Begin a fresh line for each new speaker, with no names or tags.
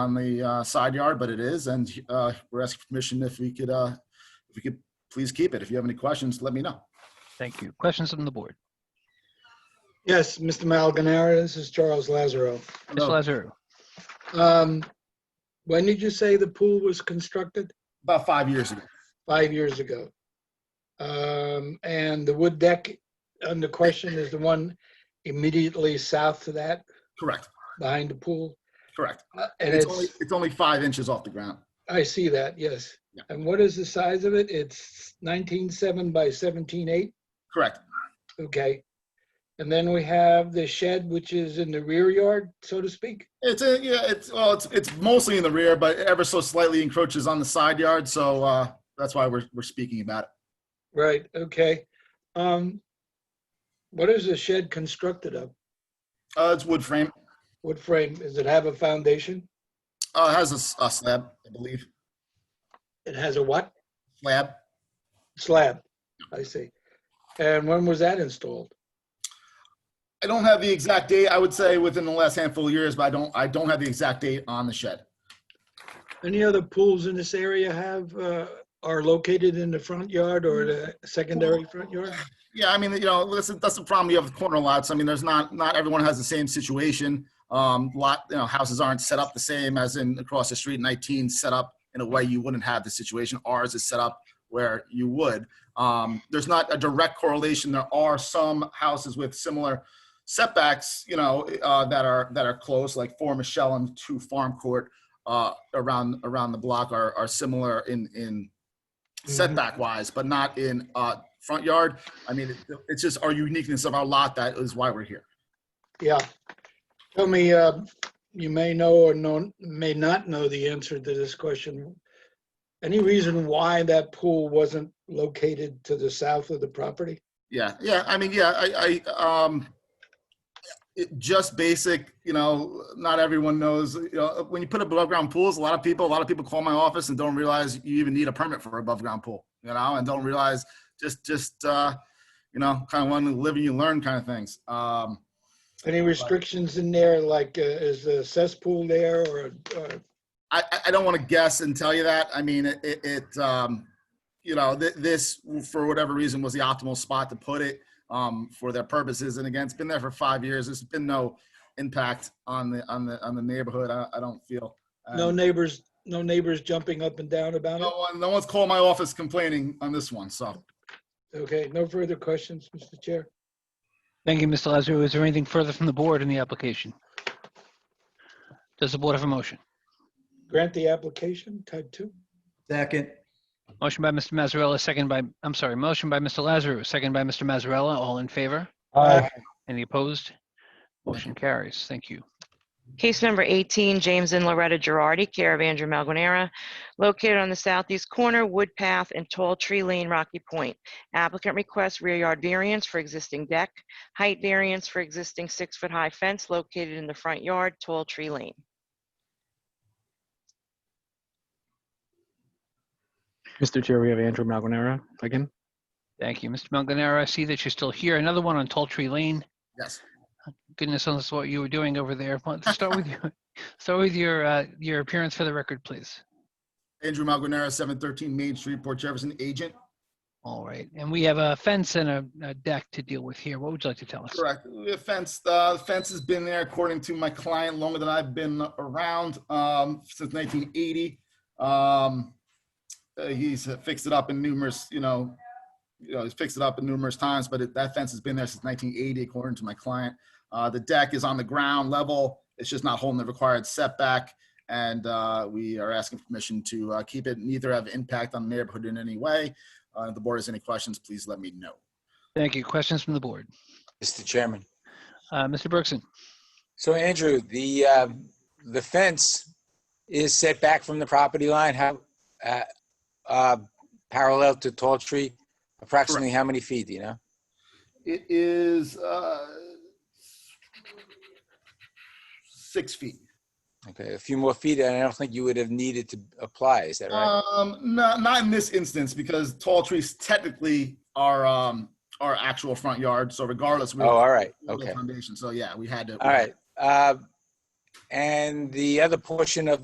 on the uh, side yard, but it is, and uh, we're asking permission if we could, uh, if we could please keep it. If you have any questions, let me know.
Thank you. Questions from the board?
Yes, Mr. Malganara, this is Charles Lazaro.
Mr. Lazaru,
Um, When did you say the pool was constructed?
About five years ago,
Five years ago. Um, And the wood deck under question is the one immediately south to that,
correct,
behind the pool?
correct.
Uh, And
It's only,
it's,
it's only five inches off the ground.
I see that, yes.
Yeah.
And what is the size of it? It's 19.7 by 17.8?
Correct,
Okay. And then we have the shed, which is in the rear yard, so to speak?
It's a, yeah, it's, well, it's, it's mostly in the rear, but ever so slightly encroaches on the side yard, so, uh, that's why we're, we're speaking about it.
Right, okay. Um, what is the shed constructed of?
Uh, it's wood frame,
What frame? Does it have a foundation?
uh, it has a s- a slab, I believe,
It has a what?
slab.
Slab, I see. And when was that installed?
I don't have the exact date, I would say within the last handful of years, but I don't, I don't have the exact date on the shed.
Any other pools in this area have, uh, are located in the front yard or the secondary front yard?
Yeah, I mean, you know, that's, that's the problem. You have corner lots. I mean, there's not, not everyone has the same situation. Um, lot, you know, houses aren't set up the same as in across the street. 19 set up in a way you wouldn't have the situation. Ours is set up where you would. Um, there's not a direct correlation. There are some houses with similar setbacks, you know, uh, that are, that are close, like four Michelle and two Farm Court, uh, around, around the block are, are similar in, in setback wise, but not in, uh, front yard. I mean, it- it's just our uniqueness of our lot that is why we're here.
Yeah. Tell me, uh, you may know or know, may not know the answer to this question. Any reason why that pool wasn't located to the south of the property?
Yeah, yeah. I mean, yeah. I, I um, it, just basic. You know, not everyone knows. You know, when you put above ground pools, a lot of people, a lot of people call my office and don't realize you even need a permit for above ground pool. You know, and don't realize just just uh, you know, kind of one of the live and you learn kind of things. Um,
Any restrictions in there, like uh, is a cesspool there or, uh, or-
I, I- I don't want to guess and tell you that. I mean, it, it, it um, you know, th- this for whatever reason was the optimal spot to put it um, for their purposes. And again, it's been there for five years. There's been no impact on the on the on the neighborhood. I, I don't feel. Um,
no neighbors, no neighbors jumping up and down about
no
it?
one, no one's called my office complaining on this one. So
Okay, no further questions, Mr. Chair?
thank you, Mr. Lazaru. Is there anything further from the board in the application? Does the board have a motion?
Grant the application, type two?
Second,
Motion by Mr. Mazzarella, second by, I'm sorry, motion by Mr. Lazaru, second by Mr. Mazzarella. All in favor?
Aye.
Any opposed? Motion carries. Thank you.
Case number 18, James and Loretta Girardi, care of Andrew Malguanera, located on the southeast corner, Wood Path and Tall Tree Lane, Rocky Point. Applicant requests rear yard variance for existing deck, height variance for existing six-foot-high fence located in the front yard, Tall Tree Lane.
Mr. Chair, we have Andrew Malganara again.
Thank you, Mr. Manganaro. I see that you're still here. Another one on Tall Tree Lane.
yes,
Goodness knows what you were doing over there. But Start with your, start with your, uh, your appearance for the record, please.
Andrew Malguanera, seven thirteen Main Street, Port Jefferson, agent.
All right. And we have a fence and a, a deck to deal with here. What would you like to tell us?
Correct. The fence, the fence has been there, according to my client, longer than I've been around, um, since nineteen eighty. Um, uh, he's fixed it up in numerous, you know, you know, he's fixed it up in numerous times, but it- that fence has been there since nineteen eighty, according to my client. Uh, the deck is on the ground level. It's just not holding the required setback. And, uh, we are asking permission to, uh, keep it, neither have impact on the neighborhood in any way. Uh, if the board has any questions, please let me know.
Thank you. Questions from the board?
Mr. Chairman.
Uh, Mr. Bergson,
So Andrew, the, um, the fence is set back from the property line, how, uh, uh, parallel to tall tree, approximately how many feet, do you know?
It is uh, six feet.
Okay, a few more feet, and I don't think you would have needed to apply, is that right?
Um, no, not in this instance because tall trees technically are um, our actual front yard. So regardless, we
Oh, all right,
we built a
okay,
foundation. So yeah, we had to.
all right. Uh, And the other portion of